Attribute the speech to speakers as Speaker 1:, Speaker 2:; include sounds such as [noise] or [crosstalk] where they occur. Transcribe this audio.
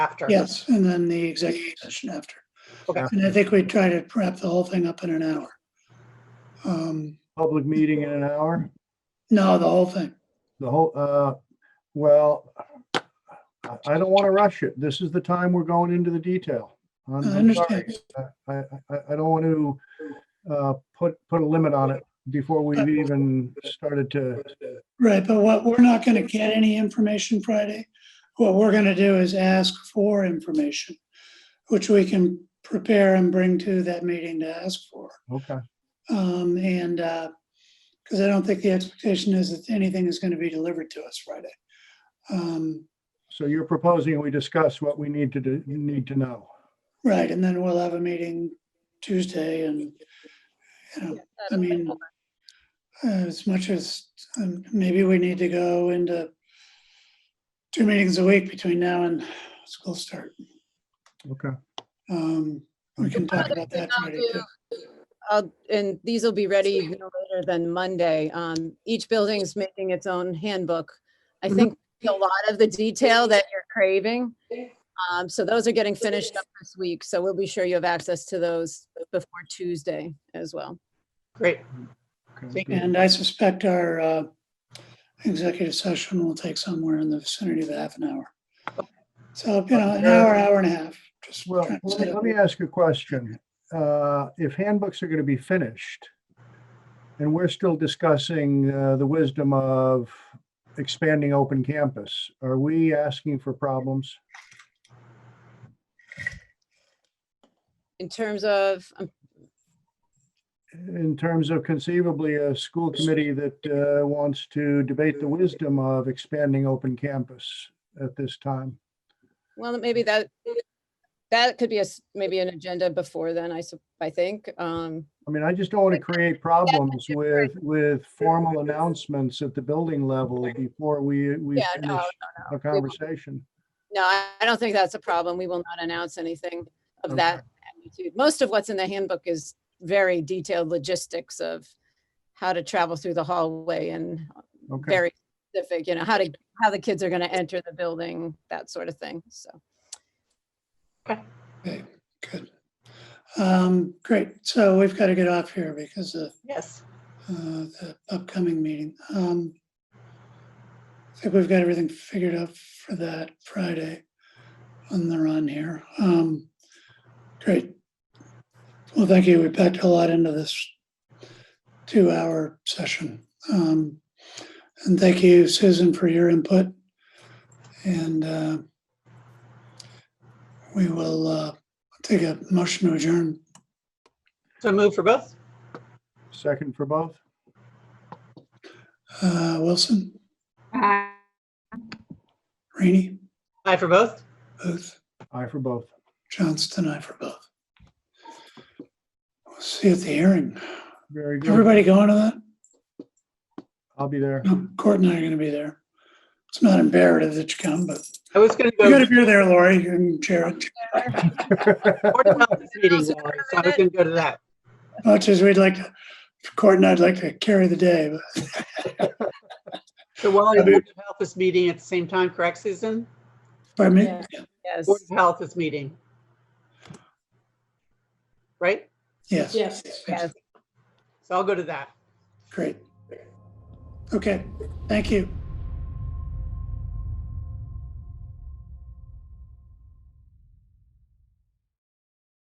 Speaker 1: after.
Speaker 2: Yes, and then the executive session after.
Speaker 1: Okay.
Speaker 2: And I think we try to wrap the whole thing up in an hour. Um,
Speaker 3: Public meeting in an hour,
Speaker 2: No, the whole thing.
Speaker 3: the whole, uh, well, I, I don't want to rush it. This is the time we're going into the detail. I'm-
Speaker 2: I
Speaker 3: I'm sorry.
Speaker 2: understand.
Speaker 3: I, I, I- I don't want to, uh, put, put a limit on it before
Speaker 2: Uh,
Speaker 3: we've even started to,
Speaker 2: Right, but what, we're not going to get any information Friday. What we're going to do is ask for information, which we can prepare and bring to that meeting to ask for.
Speaker 3: okay,
Speaker 2: Um, and, uh, because I don't think the expectation is that anything is going to be delivered to us Friday. Um,
Speaker 3: so you're proposing we discuss what we need to do, need to know.
Speaker 2: right, and then we'll have a meeting Tuesday and, you know, I mean, uh, as much as, um, maybe we need to go into two meetings a week between now and school start.
Speaker 3: Okay.
Speaker 2: Um, we can talk about that Friday too.
Speaker 4: I'll- And these will be ready no later than Monday. Um, Each building's making its own handbook. I
Speaker 2: Mhm.
Speaker 4: think a lot of the detail that you're craving. Um, So those are getting finished up this week, so we'll be sure you have access to those before Tuesday as well.
Speaker 1: Great.
Speaker 3: okay.
Speaker 2: And I suspect our, uh, executive session will take somewhere in the vicinity of half an hour. So, you know, an hour, hour and a half, just.
Speaker 4: [laughs]
Speaker 3: Well,
Speaker 2: trying to
Speaker 3: let
Speaker 2: set
Speaker 3: me,
Speaker 2: up-
Speaker 3: let me ask you a question. Uh, If handbooks are going to be finished, and we're still discussing uh, the wisdom of expanding open campus, are we asking for problems?
Speaker 4: In terms of, um,
Speaker 3: In terms of conceivably a school committee that uh, wants to debate the wisdom of expanding open campus at this time?
Speaker 4: well, maybe that, that could be a, s- maybe an agenda before then, I, sup- I think. Um,
Speaker 3: I mean, I just don't want to create problems with, with formal announcements at the building level before we, we
Speaker 4: Yeah,
Speaker 3: finish a
Speaker 4: no, no, we won't.
Speaker 3: conversation.
Speaker 4: No, I I don't think that's a problem. We will not announce anything
Speaker 3: Okay.
Speaker 4: of that magnitude. Most of what's in the handbook is very detailed logistics of how to travel through the hallway and
Speaker 3: Okay.
Speaker 4: very specific, you know, how to, how the kids are going to enter the building, that sort of thing. So
Speaker 2: Okay, good. Um, great, so we've got to get off here because of
Speaker 1: Yes.
Speaker 2: uh, the upcoming meeting. Um, I think we've got everything figured out for that Friday on the run here. Um, Great. Well, thank you. We packed a lot into this two-hour session. Um, And thank you, Susan, for your input. And uh, we will uh, take a motion to adjourn.
Speaker 1: So move for both?
Speaker 3: Second for both?
Speaker 2: Uh, Wilson,
Speaker 5: Aye.
Speaker 2: Rainey,
Speaker 1: Aye for both?
Speaker 2: Booth.
Speaker 3: Aye for both.
Speaker 2: Johnston, I for both. We'll See you at the hearing. [laughs]
Speaker 3: Very good.
Speaker 2: Everybody going to that?
Speaker 3: I'll
Speaker 2: [laughs]
Speaker 3: be there.
Speaker 2: No, Court and I are gonna be there. It's not imperative that you come, but
Speaker 1: I was going to
Speaker 2: you
Speaker 1: go.
Speaker 2: gotta be there, Lori and Jared.
Speaker 1: Board of Health is meeting, Lori, so I was going to go to that.
Speaker 2: Much as we'd like to, Court and I'd like to carry the day, but
Speaker 1: The Wallingford Board of Health is meeting at the same time, correct, Susan?
Speaker 2: pardon me?
Speaker 4: Yeah. yes,
Speaker 1: Board of Health is meeting. Right?
Speaker 2: Yes.
Speaker 5: Yes.
Speaker 4: yes.
Speaker 1: So I'll go to that.
Speaker 2: Great. Okay, thank you.